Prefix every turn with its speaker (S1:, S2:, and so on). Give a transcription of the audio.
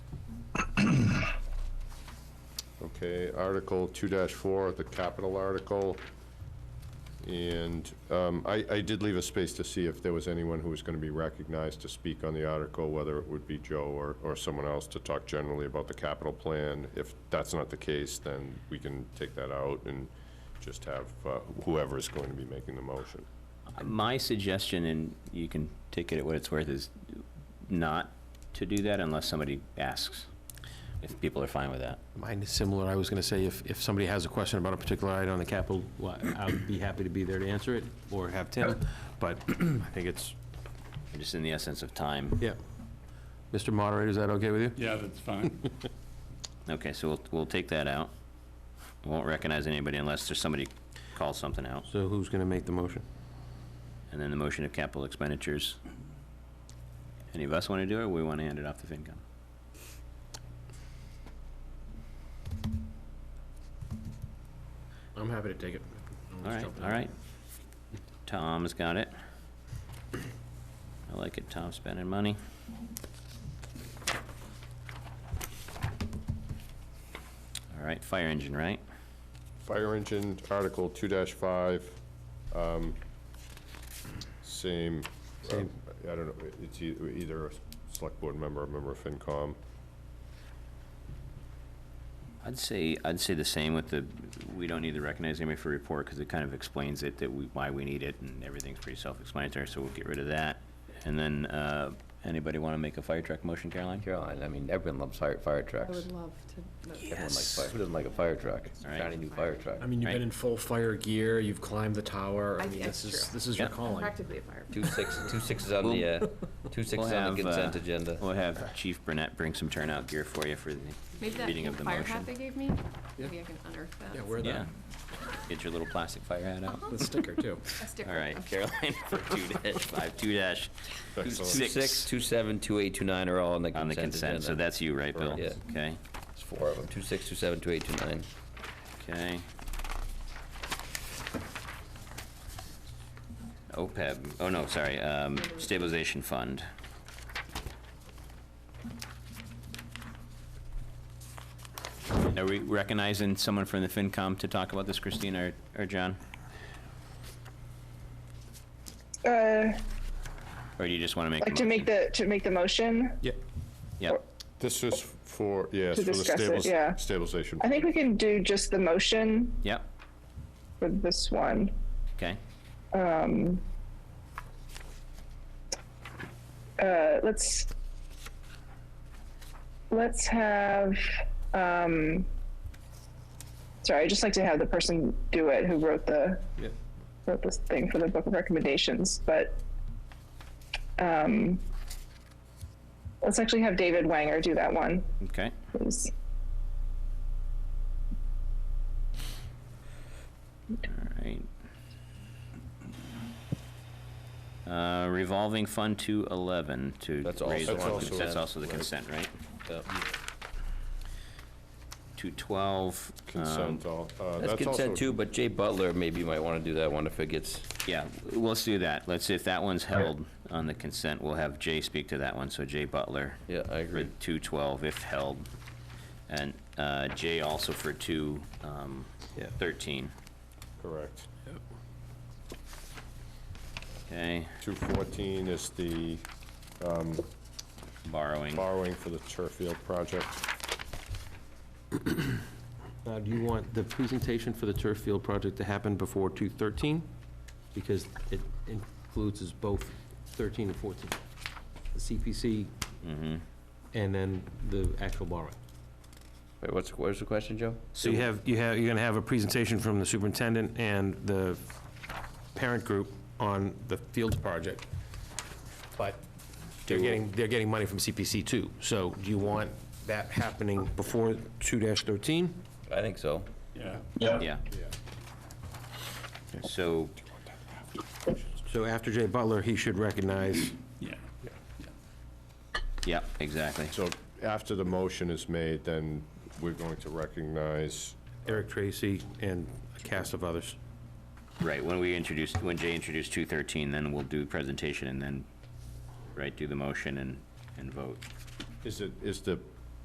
S1: Okay, Article two four, the capital article. And um, I, I did leave a space to see if there was anyone who was going to be recognized to speak on the article, whether it would be Joe or, or someone else to talk generally about the capital plan. If that's not the case, then we can take that out and just have uh, whoever is going to be making the motion.
S2: My suggestion, and you can take it at what it's worth, is not to do that unless somebody asks, if people are fine with that.
S3: Mine is similar. I was going to say, if, if somebody has a question about a particular item on the capital, well, I'd be happy to be there to answer it, or have Tim, but I think it's,
S2: Just in the essence of time.
S3: yeah. Mr. Moderator, is that okay with you?
S4: Yeah, that's fine.
S2: Okay, so we'll, we'll take that out. Won't recognize anybody unless there's somebody calls something out.
S3: So who's going to make the motion?
S2: And then the motion of capital expenditures. Any of us want to do it, or we want to hand it off to FinCom?
S3: I'm happy to take it.
S2: All right, all right. Tom's got it. I like it, Tom spending money. All right, fire engine, right?
S1: Fire engine, Article two five, um, same, um, I don't know, it's e- either a select board member, or a member of FinCom.
S2: I'd say, I'd say the same with the, we don't need to recognize anybody for report, because it kind of explains it, that we, why we need it, and everything's pretty self-explanatory, so we'll get rid of that. And then, uh, anybody want to make a fire truck motion, Caroline?
S5: Caroline, I mean, everyone loves fire, fire
S6: I
S5: trucks.
S6: would love to.
S2: Oh,
S5: Everyone likes fire, who doesn't like a fire truck? It's a
S2: Right.
S5: Shiny new fire truck.
S7: I mean, you've
S2: Right.
S7: been in full fire gear, you've climbed the tower,
S6: I-
S7: I mean,
S6: that's
S7: this is,
S6: true.
S7: this is your
S2: Yeah.
S7: calling.
S6: Practically a fire.
S5: Two six, two sixes on the, uh, two sixes
S2: We'll
S5: on
S2: have,
S5: the consent
S2: uh,
S5: agenda.
S2: We'll have Chief Burnett bring some turnout gear for you for the
S6: Maybe that
S2: reading
S6: pink
S2: of the
S6: fire hat they
S2: motion.
S6: gave me,
S7: Yeah.
S6: maybe I can unearth that.
S7: Yeah, wear
S2: Yeah.
S7: that,
S2: Get your little plastic fire hat out.
S7: the sticker too.
S6: A sticker.
S2: All right,
S6: Okay.
S2: Caroline for two dash five, two dash
S5: Two
S1: Excellent.
S5: six,
S2: six
S5: two seven, two eight, two nine are all on the
S2: on the
S5: consent agenda.
S2: consent, so that's you, right, Bill?
S5: Correct.
S2: Okay,
S5: It's four of them, two six, two seven, two eight, two nine.
S2: okay. OPEB, oh no, sorry, um, stabilization fund. Are we recognizing someone from the FinCom to talk about this, Christine or, or John?
S8: Uh,
S2: Or do you just want to make? a
S8: like to make
S2: motion?
S8: the, to make the motion?
S3: Yeah,
S2: Yep,
S1: This is for, yes,
S8: To
S1: for the
S8: discuss it, yeah.
S1: stables, stabilization.
S8: I think we can do just the motion
S2: yep,
S8: for this one.
S2: okay.
S8: Uh, let's, let's have, um, sorry, I'd just like to have the person do it who wrote the,
S3: yeah.
S8: wrote this thing for the book of recommendations, but, um, let's actually have David Wanger do that one,
S2: Okay,
S8: please.
S2: all right. Uh, Revolving Fund 211 to.
S5: That's also
S2: raise-
S5: on
S1: That's consent.
S2: That's also the
S5: right.
S2: consent, right?
S5: Yep.
S2: 212. um,
S1: Consent, all- uh,
S5: That's
S1: that's also,
S5: consent too, but Jay Butler, maybe you might wanna do that one if it gets,
S2: Yeah, w- let's do that. Let's, if that one's held on the consent, we'll have Jay speak to that one, so Jay Butler.
S5: yeah, I
S2: For
S5: agree.
S2: 212 if held. And uh, Jay also for um, 213.
S1: correct.
S2: Okay,
S1: 214 is the
S2: borrowing.
S1: borrowing for the turf field project.
S3: Now, Uh, do you want the presentation for the turf field project to happen before 2:13? Because it includes us both 13 and 14, the CPC and then the actual borrowing.
S5: Wait, what's, where's the question, Joe?
S3: So you have, you have, you're gonna have a presentation from the superintendent and the parent group on the Fields project, but they're getting, they're getting money from CPC too. So do you want that happening before 2-13?
S5: I think so.
S4: Yeah.
S2: Yeah. So,
S3: So after Jay Butler, he should recognize,
S4: Yeah.
S2: yeah, exactly.
S1: So after the motion is made, then we're going to recognize,
S3: Eric Tracy and a cast of others.
S2: Right, when we introduced, when Jay introduced 213, then we'll do presentation and then, right, do the motion and, and vote.
S1: is it, is the